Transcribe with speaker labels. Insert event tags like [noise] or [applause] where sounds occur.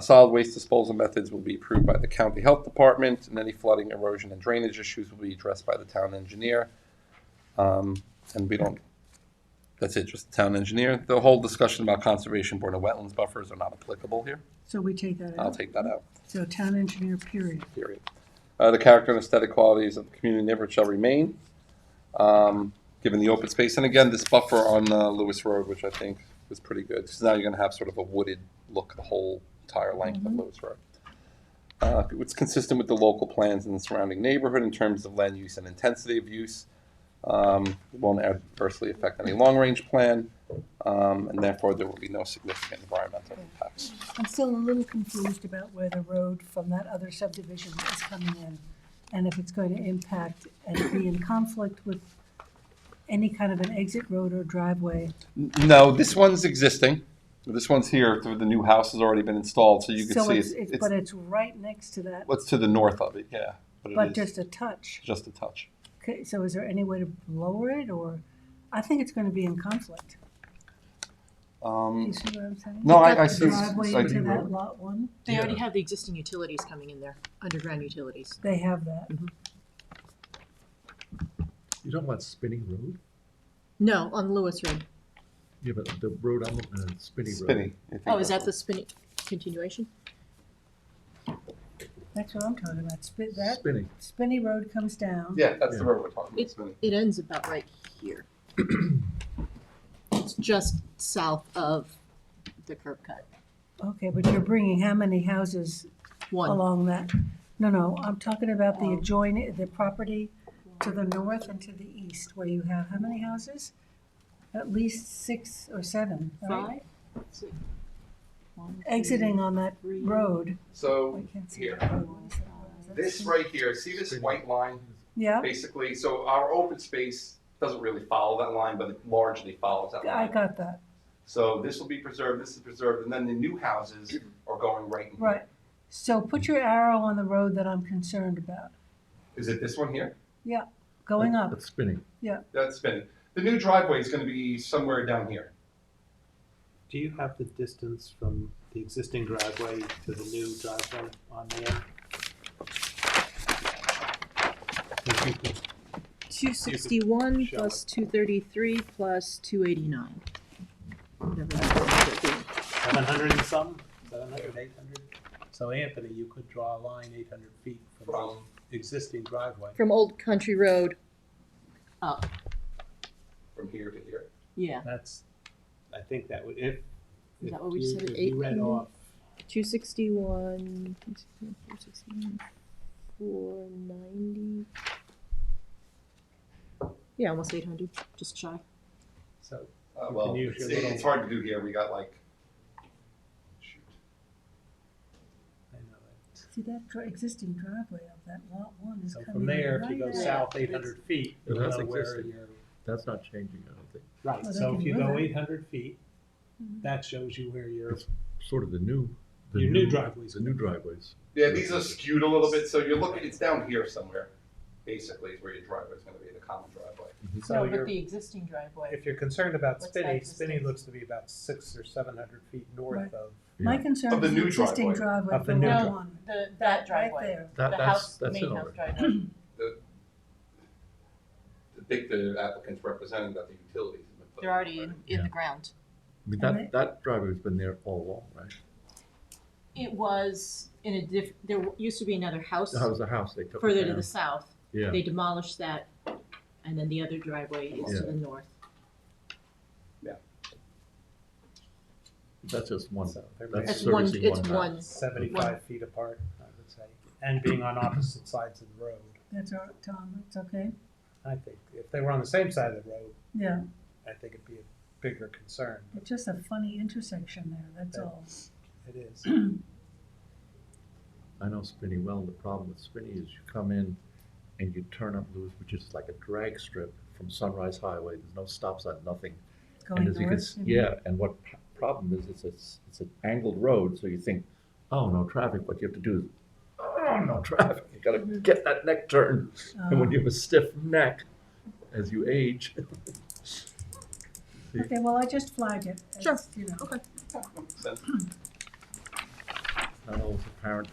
Speaker 1: Solid waste disposal methods will be approved by the county health department, and any flooding, erosion, and drainage issues will be addressed by the town engineer. Um, and we don't, that's it, just the town engineer. The whole discussion about conservation board and wetlands buffers are not applicable here.
Speaker 2: So we take that
Speaker 1: I'll
Speaker 2: out.
Speaker 1: take that out,
Speaker 2: So town engineer, period.
Speaker 1: period. Uh, the character and aesthetic qualities of the community neighborhood shall remain, um, given the open space. And again, this buffer on, uh, Lewis Road, which I think was pretty good, because now you're gonna have sort of a wooded look the whole entire length of Lewis Road. Uh, it's consistent with the local plans in the surrounding neighborhood in terms of land use and intensity of use. Um, it won't adversely affect any long-range plan, um, and therefore there will be no significant environmental impacts.
Speaker 2: I'm still a little confused about where the road from that other subdivision is coming in and if it's going to impact and be in conflict with any kind of an exit road or driveway.
Speaker 1: N- No, this one's existing. This one's here, so the new house has already been installed, so you can
Speaker 2: So
Speaker 1: see
Speaker 2: it's,
Speaker 1: it's,
Speaker 2: it's,
Speaker 1: it's,
Speaker 2: but it's right next to that,
Speaker 1: what's to the north of it, yeah.
Speaker 2: but
Speaker 1: But it is
Speaker 2: just a touch.
Speaker 1: just a touch.
Speaker 2: Okay, so is there any way to lower it or, I think it's going to be in conflict. Do you
Speaker 1: Um,
Speaker 2: see what I'm saying?
Speaker 1: No, I, I
Speaker 3: But
Speaker 1: see.
Speaker 3: the
Speaker 2: Driveway
Speaker 1: I
Speaker 2: into
Speaker 1: do-
Speaker 2: that lot one,
Speaker 3: They already
Speaker 1: Yeah.
Speaker 3: have the existing utilities coming in there, underground utilities.
Speaker 2: they have that.
Speaker 4: You don't want spinning road?
Speaker 3: No, on Lewis Road.
Speaker 4: Yeah, but the road, I'm looking at is spinning road.
Speaker 1: Spinning. I think
Speaker 3: Oh, is that
Speaker 1: that's-
Speaker 3: the spinning continuation?
Speaker 2: That's what I'm talking about. Spit that
Speaker 4: Spinning.
Speaker 2: Spinney Road comes down.
Speaker 1: Yeah, that's the
Speaker 4: Yeah.
Speaker 1: road we're talking about,
Speaker 3: It-
Speaker 1: spinning.
Speaker 3: It ends about right here. It's just south of the curb cut.
Speaker 2: Okay, but you're bringing how many houses
Speaker 3: One,
Speaker 2: along that? No, no, I'm talking about the adjoining, the property to the north and to the east, where you have how many houses? At least six or seven, right?
Speaker 3: five? six, one, two,
Speaker 2: Exiting on that
Speaker 3: three,
Speaker 2: road. I
Speaker 1: So
Speaker 2: can't see
Speaker 1: here,
Speaker 2: that road. What is that? Is that
Speaker 1: this
Speaker 2: six?
Speaker 1: right here, see this white line?
Speaker 2: Yeah,
Speaker 1: Basically, so our open space doesn't really follow that line, but it largely follows that
Speaker 2: I
Speaker 1: line.
Speaker 2: got that.
Speaker 1: So this will be preserved, this is preserved, and then the new houses are going right in here.
Speaker 2: Right. So put your arrow on the road that I'm concerned about.
Speaker 1: Is it this one here?
Speaker 2: Going
Speaker 4: That's-
Speaker 2: up,
Speaker 4: That's spinning.
Speaker 1: That's spinning. The new driveway is gonna be somewhere down here.
Speaker 5: Do you have the distance from the existing driveway to the new driveway on there? If you could-
Speaker 3: Two sixty-one
Speaker 5: Shall
Speaker 3: plus two thirty-three plus two eighty-nine. Whatever that would be.
Speaker 5: 700 and some, 700, 800? So Anthony, you could draw a line 800 feet from
Speaker 1: From,
Speaker 5: the existing driveway.
Speaker 3: From Old Country Road up,
Speaker 1: from here to here.
Speaker 3: yeah.
Speaker 5: That's, I think that would, if,
Speaker 3: Is
Speaker 5: if
Speaker 3: that what we
Speaker 5: you,
Speaker 3: said,
Speaker 5: if you read
Speaker 3: 800?
Speaker 5: off,
Speaker 3: 261, 261, 490. Yeah, almost 800, just shy.
Speaker 5: so
Speaker 1: Uh,
Speaker 5: You
Speaker 1: well,
Speaker 5: can use
Speaker 1: it's,
Speaker 5: your
Speaker 1: it's
Speaker 5: little-
Speaker 1: hard to do here, we got like, shoot.
Speaker 5: I know it.
Speaker 2: see that dri- existing driveway of that lot one is
Speaker 5: So
Speaker 2: coming right
Speaker 5: from there, if you go
Speaker 2: out.
Speaker 3: Yeah.
Speaker 5: south 800 feet, you
Speaker 4: Yeah, that's
Speaker 5: know where
Speaker 4: existing.
Speaker 5: you're
Speaker 4: That's not changing, I don't think.
Speaker 5: Right,
Speaker 2: Well, they
Speaker 5: so
Speaker 2: can
Speaker 5: if you
Speaker 2: move
Speaker 5: go
Speaker 2: it.
Speaker 5: eight hundred feet, that shows you where you're,
Speaker 4: Sort of the new. the
Speaker 5: Your new driveways.
Speaker 4: The new driveways.
Speaker 1: Yeah, these are skewed a little bit, so you're looking, it's down here somewhere, basically, is where your driveway's gonna be, the common driveway.
Speaker 2: Oh,
Speaker 5: so you're,
Speaker 3: existing driveway.
Speaker 5: if you're concerned about
Speaker 3: What's
Speaker 5: Spinney,
Speaker 3: that
Speaker 5: Spinney
Speaker 3: distance?
Speaker 5: looks to be about six or seven hundred feet north
Speaker 2: Right.
Speaker 5: of,
Speaker 2: My
Speaker 4: Yeah.
Speaker 2: concern
Speaker 1: Of the
Speaker 2: is the
Speaker 1: new
Speaker 2: existing driveway
Speaker 5: Of the
Speaker 2: for
Speaker 5: new
Speaker 2: lot
Speaker 5: dri-
Speaker 2: one,
Speaker 3: The,
Speaker 2: right there.
Speaker 4: That, that's, that's in order.
Speaker 2: [laughs]
Speaker 3: driveway.
Speaker 1: I think the applicant's representing that the utilities. have been put
Speaker 4: in the
Speaker 3: ground.
Speaker 4: I mean,
Speaker 2: And
Speaker 4: that, that driveway's been there all along, right?
Speaker 3: It was in a diff, there used to be another house
Speaker 4: That was the house they took.
Speaker 3: further to
Speaker 4: down.
Speaker 3: the south.
Speaker 4: Yeah,
Speaker 3: They demolished that, and then the other driveway is to
Speaker 4: Yeah.
Speaker 3: the north.
Speaker 4: that's just one.
Speaker 5: So they're
Speaker 3: It's
Speaker 4: That's
Speaker 5: It's
Speaker 3: one,
Speaker 4: servicing
Speaker 3: it's
Speaker 4: house.
Speaker 3: one
Speaker 5: seventy-five feet apart, I would say, and being on opposite sides of the road.
Speaker 2: That's all, right, Tom, it's okay,
Speaker 5: I think, if they were on the same side of the road,
Speaker 2: yeah,
Speaker 5: I think it'd be a bigger concern,
Speaker 2: it's just a funny intersection there, that's
Speaker 5: Yeah.
Speaker 2: all.
Speaker 5: it is.
Speaker 4: I know Spinney well, and the problem with Spinney is you come in and you turn up Lewis, which is like a drag strip from Sunrise Highway, there's no stops on nothing.
Speaker 2: Going
Speaker 4: And as you can,
Speaker 2: north,
Speaker 4: s-
Speaker 2: you mean?
Speaker 4: yeah, and what p- problem is, it's, it's, it's an angled road, so you think, oh, no traffic, what you have to do is, oh, no traffic, you gotta
Speaker 2: Mm-hmm.
Speaker 4: get that neck turn, and when
Speaker 2: Uh,
Speaker 4: you have a stiff neck, as you age,
Speaker 2: Okay, well, I just flagged it. as,
Speaker 3: Sure.
Speaker 2: You know,
Speaker 3: Okay.
Speaker 1: Makes sense.
Speaker 4: it's apparent